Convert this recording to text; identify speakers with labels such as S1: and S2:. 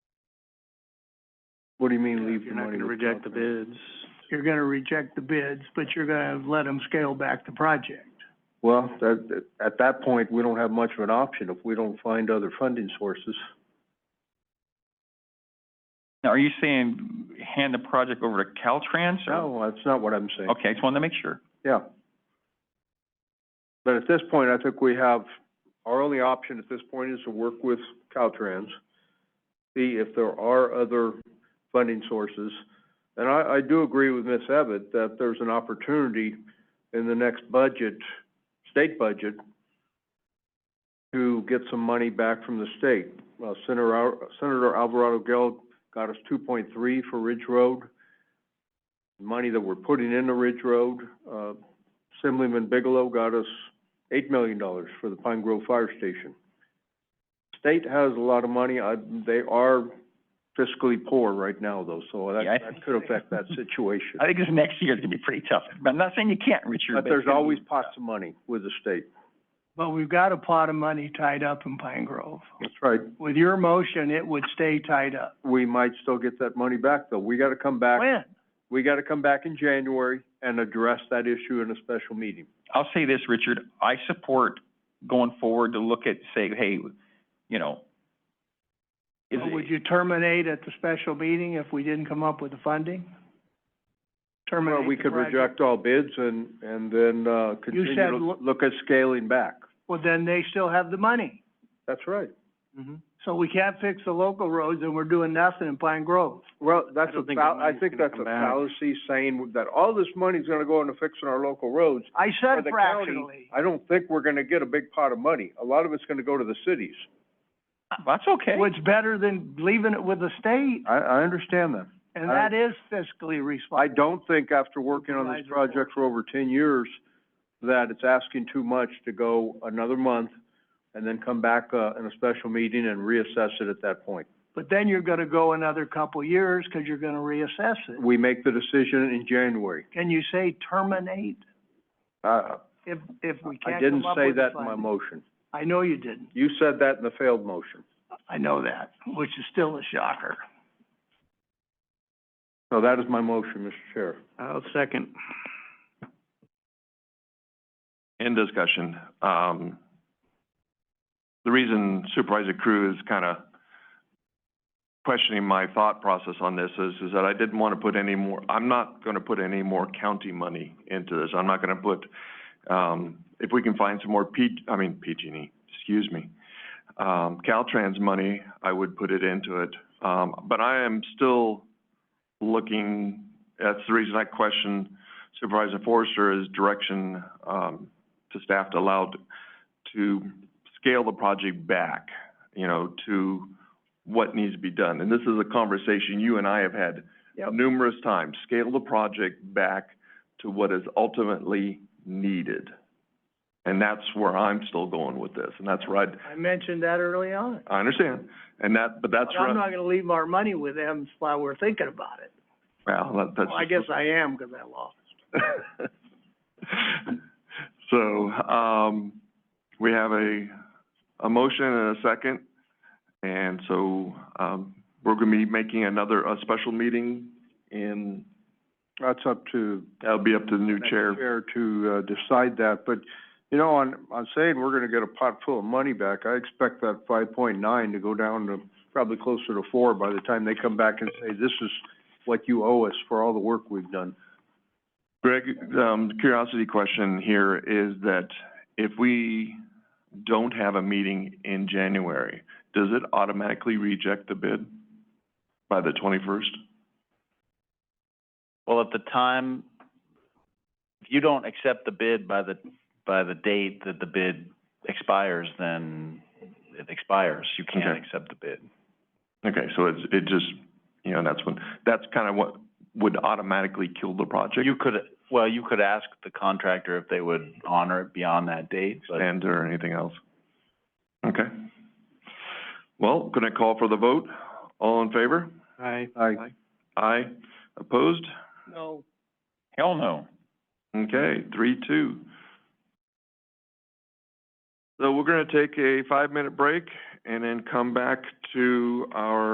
S1: What do you mean leave the
S2: You're not
S1: money
S2: gonna
S1: with
S2: reject the
S1: Caltrans?
S2: bids.
S3: You're gonna reject the bids, but you're gonna let them scale back the project.
S1: Well, that, that- at that point, we don't have much of an option if we don't find other funding sources.
S4: Now, are you saying hand the project over to Caltrans or?
S1: No, that's not what I'm saying.
S4: Okay, I just wanted to make sure.
S1: Yeah. But at this point, I think we have, our only option at this point is to work with Caltrans, see if there are other funding sources. And I, I do agree with Ms. Abbott that there's an opportunity in the next budget, state budget, to get some money back from the state. Well, Senator, Al- Senator Alvarado Gil got us two point three for Ridge Road money that we're putting into Ridge Road. Uh, Assemblyman Bigelow got us eight million dollars for the Pine Grove Fire Station. State has a lot of money. I, they are fiscally poor right now though, so that,
S4: Yeah, I-
S1: that could affect that situation.
S4: I think this next year is gonna be pretty tough, but I'm not saying you can't, Richard.
S1: But
S4: it's
S1: there's
S4: gonna be-
S1: always pots of money with the state.
S3: But we've got a pot of money tied up in Pine Grove.
S1: That's right.
S3: With your motion, it would stay tied up.
S1: We might still get that money back though. We gotta come back,
S3: When?
S1: we gotta come back in January and address that issue in a special meeting.
S4: I'll say this, Richard, I support going forward to look at, say, hey, you know, is
S3: But Would
S4: it,
S3: you terminate at the special meeting if we didn't come up with the funding?
S1: Well,
S3: Terminate
S1: we
S3: the
S1: could
S3: project.
S1: reject all bids and, and then, uh, continue
S3: said
S1: to
S3: lo-
S1: look at scaling back.
S3: Well, then they still have the money.
S1: That's right.
S3: So we can't fix the local roads and we're doing nothing in Pine Grove.
S1: Well, that's
S2: I
S1: a
S2: don't think the
S1: fal- I
S2: money's
S1: think
S2: gonna
S1: that's a
S2: come back.
S1: fallacy saying that all this money's gonna go into fixing our local roads.
S3: I
S1: For
S3: said
S1: the county,
S3: fractionally.
S1: I don't think we're gonna get a big pot of money. A lot of it's gonna go to the cities.
S4: that's okay.
S3: Well, it's better than leaving it with the state,
S1: I, I understand that.
S3: and
S1: I-
S3: that is fiscally
S1: I
S3: responsible.
S1: don't think after working on this
S3: Supervisor Ford.
S1: project for over ten years, that it's asking too much to go another month and then come back, uh, in a special meeting and reassess it at that point.
S3: But then you're gonna go another couple years, cause you're gonna reassess it.
S1: We make the decision in January.
S3: Can you say terminate
S1: Uh,
S3: if, if we
S1: I
S3: can't
S1: didn't
S3: come up
S1: say
S3: with the
S1: that in my
S3: funding?
S1: motion.
S3: I know you didn't.
S1: You said that in the failed motion.
S3: I know that, which is still a shocker.
S1: So that is my motion, Mr. Chair.
S2: I'll second.
S5: In discussion, um, the reason Supervisor Cruz kind of questioning my thought process on this is, is that I didn't want to put any more, I'm not going to put any more county money into this. I'm not going to put, um, if we can find some more P, I mean, PG&E, excuse me, um, Caltrans money, I would put it into it. Um, but I am still looking, that's the reason I question Supervisor Forrester's direction um, to staff to allow t- to scale the project back, you know, to what needs to be done. And this is a conversation you and I have had
S1: Yep.
S5: numerous times. Scale the project back to what is ultimately needed. And that's where I'm still going with this, and that's where I'd,
S3: I mentioned that early on.
S5: I understand. And that, but that's
S3: But
S5: where,
S3: I'm
S5: I'm-
S3: not gonna leave our money with them while we're thinking about it.
S5: well, that- that's.
S3: Well, I guess I am, cause I lost.
S5: So, um, we have a, a motion and a second. And so, um, we're gonna be making another, a special meeting and
S1: That's up to
S5: that'll be up to the new
S1: the
S5: chair.
S1: to, uh, decide that, but, you know, on, on saying we're gonna get a pot full of money back, I expect that five point nine to go down to probably closer to four by the time they come back and say, this is what you owe us for all the work we've done.
S5: Greg, um, curiosity question here is that if we don't have a meeting in January, does it automatically reject the bid by the twenty-first?
S6: Well, at the time, if you don't accept the bid by the, by the date that the bid expires, then it expires. You can't
S5: Okay.
S6: accept the bid.
S5: Okay, so it's, it just, you know, that's when, that's kind of what would automatically kill the project
S6: You could, well, you could ask the contractor if they would honor it beyond that date, but
S5: and or anything else. Okay. Well, can I call for the vote? All in favor?
S2: I,
S1: I,
S5: Aye. Opposed?
S3: No.
S4: Hell no.
S5: Okay, three, two. So we're gonna take a five-minute break and then come back to our